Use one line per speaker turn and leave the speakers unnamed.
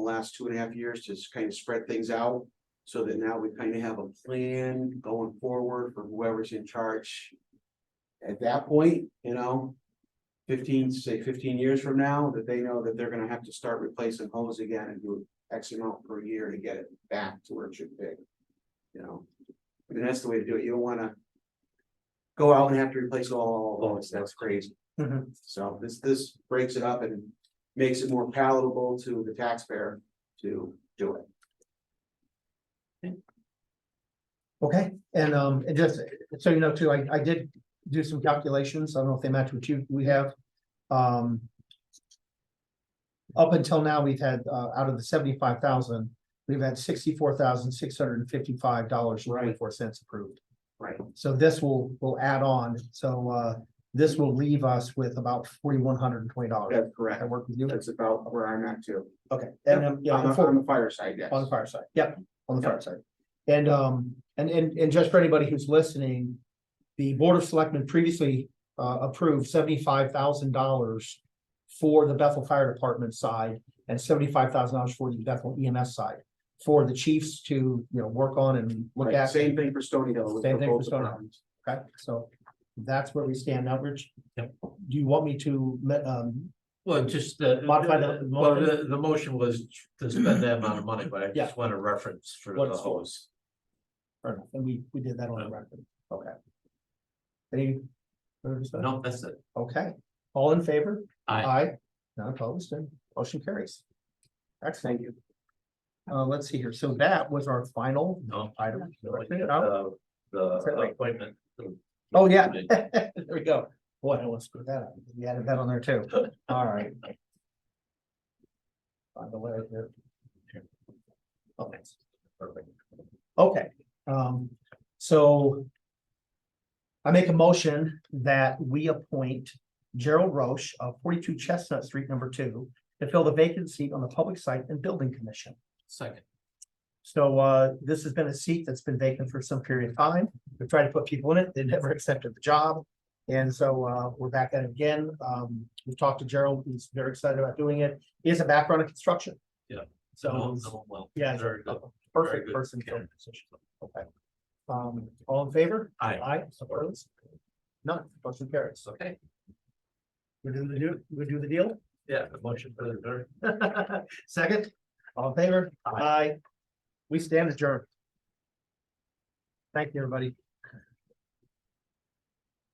the last two and a half years to kind of spread things out. So that now we kind of have a plan going forward for whoever's in charge. At that point, you know. Fifteen, say fifteen years from now, that they know that they're gonna have to start replacing hose again and do X amount per year to get it back to where it should be. You know, I mean, that's the way to do it. You don't wanna. Go out and have to replace all, all, those. that's crazy.
Mhm.
So this, this breaks it up and makes it more palatable to the taxpayer to do it.
Okay, and um, and just so you know too, I I did do some calculations. I don't know if they match what you, we have. Um. Up until now, we've had uh, out of the seventy-five thousand, we've had sixty-four thousand, six hundred and fifty-five dollars, and twenty-four cents approved.
Right.
So this will, will add on. So uh, this will leave us with about forty-one hundred and twenty dollars.
That's correct.
I work with you.
That's about where I'm at too.
Okay. And um, yeah,
On the,
before-
on the fire side, yes.
On the fire side, yep, on the fire side. And, um, and, and, and just for anybody who's listening, the Board of Selectmen previously, uh, approved seventy-five thousand dollars for the Bethel Fire Department side and seventy-five thousand dollars for the Bethel EMS side, for the chiefs to, you know, work on and look
Right,
at.
Same thing for Stony Hill. with
Same thing for
both
Stony Hill.
departments.
Okay, so that's where we stand now, Rich. Do you want me to, me- um,
Well, just the.
Modify the
Well,
motion?
the, the motion was to spend that amount of money, but I
Yeah.
just want a reference for
What
the
it's for.
hose.
fair enough, and we, we did that on the record, okay. Any? further discussion?
No, that's it.
Okay, all in favor?
Aye.
None opposed, and motion carries. Excellent. Thank you. Uh, let's see here, so that was our final
No.
item.
Uh, The appointment.
Oh, yeah, there we go. Boy, I almost screwed that up, we added that on there too, all right. By the way, here. Okay,
Perfect.
okay, um, so. I make a motion that we appoint Gerald Roche of forty-two Chestnut Street, number two, to fill the vacant seat on the Public Site and Building Commission.
Second,
So uh, this has been a seat that's been vacant for some period of time. We tried to put people in it. They never accepted the job. And so uh, we're back at it again. Um, we talked to Gerald. He's very excited about doing it. He has a background in construction.
Yeah.
So,
so,
he's-
well.
yeah, he's
Very good.
a
Very
perfect
good
person. for the
candidate.
position. Okay. Um, all in favor?
Aye.
Aye, opposed? None, motion carries.
Okay,
We do the, do- we do the deal?
yeah, the motion for the, very-
Second, all in favor?
Aye.
Aye. We stand adjourned. Thank you, everybody.